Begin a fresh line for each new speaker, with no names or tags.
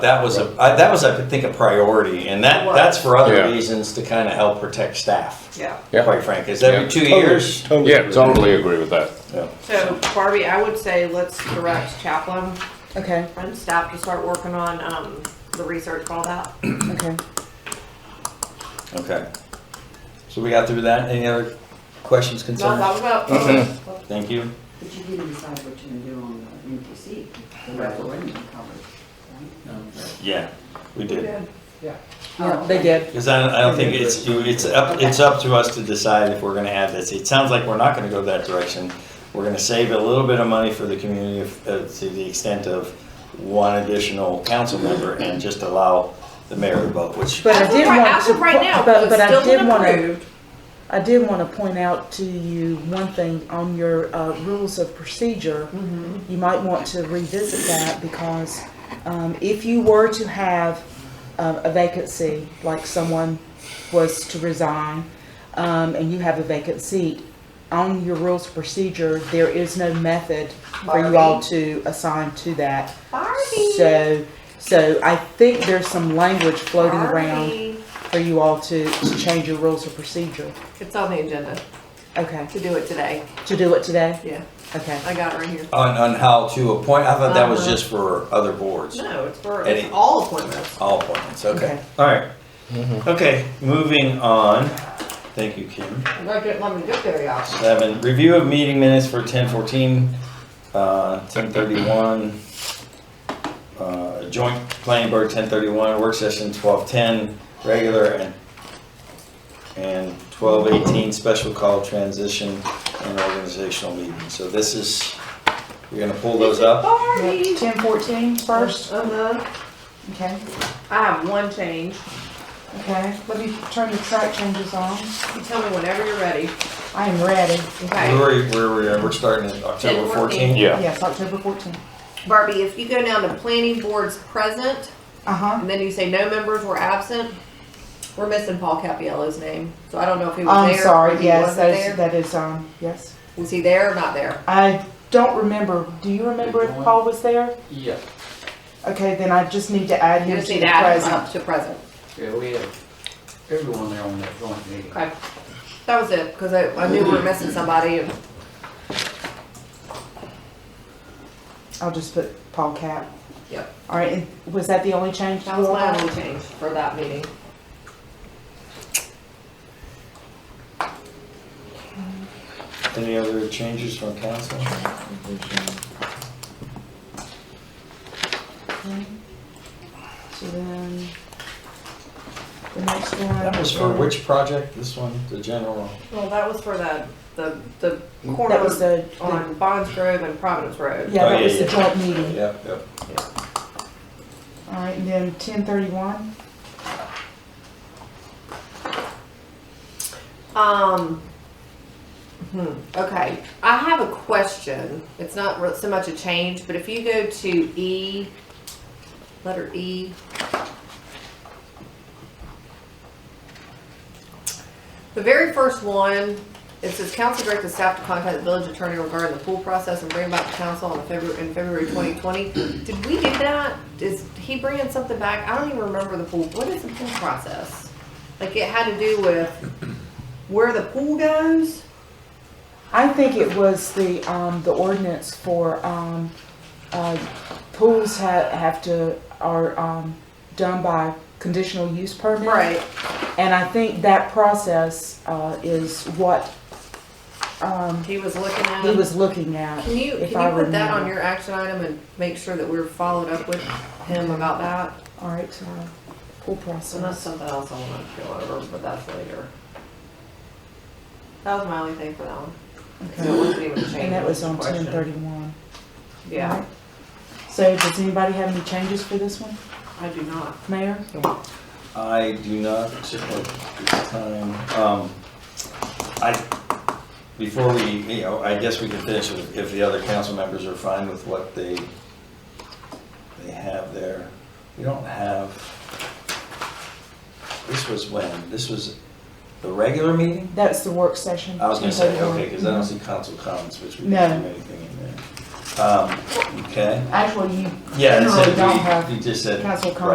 That was a, I, that was, I think, a priority, and that,
It was.
that's for
Yeah.
other reasons to kind of help protect staff,
Yeah,
quite frankly, is every
Yeah.
two years.
Totally
Yeah,
agree.
totally agree with that.
Yeah.
so Barbie, I would say let's direct Chaplin
Okay,
and staff to start working on, um, the research and all that.
okay.
Okay. So we got through that, any other questions,
No,
concerns?
that was about,
Thank you.
But you didn't decide what you're gonna do on the MPC, the referendum coverage, right?
Yeah, we did,
Oh,
Yeah, they did.
because I, don't- I don't think it's, it's up, it's up to us to decide if we're gonna add this, it sounds like we're not gonna go that direction. We're gonna save a little bit of money for the community, if- uh, to the extent of one additional council member, and just allow the mayor to vote, which
But I
as of
did
right,
want
as
to
of right
po-
now,
but-
it's
but I
still
did
been
wanna-
approved.
I did want to point out to you one thing on your uh, rules of procedure.
Mm-hmm.
You might want to revisit that because um, if you were to have um, a vacancy, like someone was to resign, um, and you have a vacant seat, on your rules of procedure, there is no method for you all
Barbie.
to assign to that.
Barbie.
So, so I think there's some language floating around
Barbie.
for you all to, to change your rules of procedure.
It's on the agenda
Okay,
to do it today,
to do it today?
yeah,
Okay,
I got it right here.
on, on how to appoint, I thought that was
Uh-huh.
just for other boards.
No, it's for,
Eddie.
it's all appointments.
All appointments, okay.
Okay.
All right. Okay, moving on. Thank you, Kim.
I'm glad you didn't let me get there, y'all.
Seven, review of meeting minutes for ten fourteen, uh, ten thirty-one. Uh, joint planning board ten thirty-one, work session twelve ten, regular and, and twelve eighteen, special call transition and organizational meeting. So this is, you're gonna pull those up?
Barbie.
Ten fourteen first,
Uh-huh.
okay,
I have one change.
okay, let me turn the track changes on,
You tell me whenever you're ready.
I am ready,
Where
Okay.
were, where were, we? we're starting at October
10-14.
fourteen?
Yeah,
yes, October fourteen,
Barbie, if you go down to planning boards present,
uh-huh.
and then you say no members were absent, we're missing Paul Capiello's name. So I don't know if he was
I'm
there. or
sorry,
he
yes,
wasn't
that
there.
is, that is, um, yes,
Was he there or not there?
I don't remember, do you remember if Paul was there?
Yeah,
Okay, then I just need to add
You
him
just
to
need
the
to add him
present.
up to present.
yeah, we had everyone there on that joint meeting.
Okay. That was it, because I, I knew we were missing somebody. and-
I'll just put Paul Cap.
Yep.
All right, and was that the only change?
That was my only change for that meeting.
Any other changes from council?
So then, the next one.
That was for which project? This one, the general?
Well, that was for the, the, the
That was
corner
the, the-
on Bonds Grove and Providence Road.
yeah,
Oh,
that
yeah,
was the
yeah.
joint meeting.
Yep, yep.
All right, and then ten thirty-one,
Um, hmm, okay, I have a question. It's not re- so much a change, but if you go to E, letter E. The very first one, it says council directed staff to contact the village attorney regarding the pool process and bring back to council on February, in February twenty twenty. Did we do that? Is he bringing something back? I don't even remember the pool. What is the pool process? Like it had to do with where the pool goes.
I think it was the, um, the ordinance for, um, uh, pools have, have to, are, um, done by conditional use permit. And I think that process, uh, is what, um,
He was looking at.
he was looking at.
Can you, can
if I
you put that on
remember.
your action item and make sure that we're followed up with him about that?
All right, so, pool process.
So that's something else I wanna kill over, but that's later. That was my only thing for that one. So it
Okay,
wasn't even a change.
and that was on
it a
ten
question.
thirty-one.
Yeah,
So does anybody have any changes for this one,
I do not.
Mayor?
I do not, at this time, um, I, before we, you know, I guess we can finish with- if the other council members are fine with what they, they have there. We don't have, this was when? This was the regular meeting?
That's the work session.
I was gonna say,
10:31.
okay, because I don't see council comments, which we
No.
didn't do anything in there. Um, okay,
Actually, you
yeah, it
generally don't
said, we-
have
you just said.
council
right.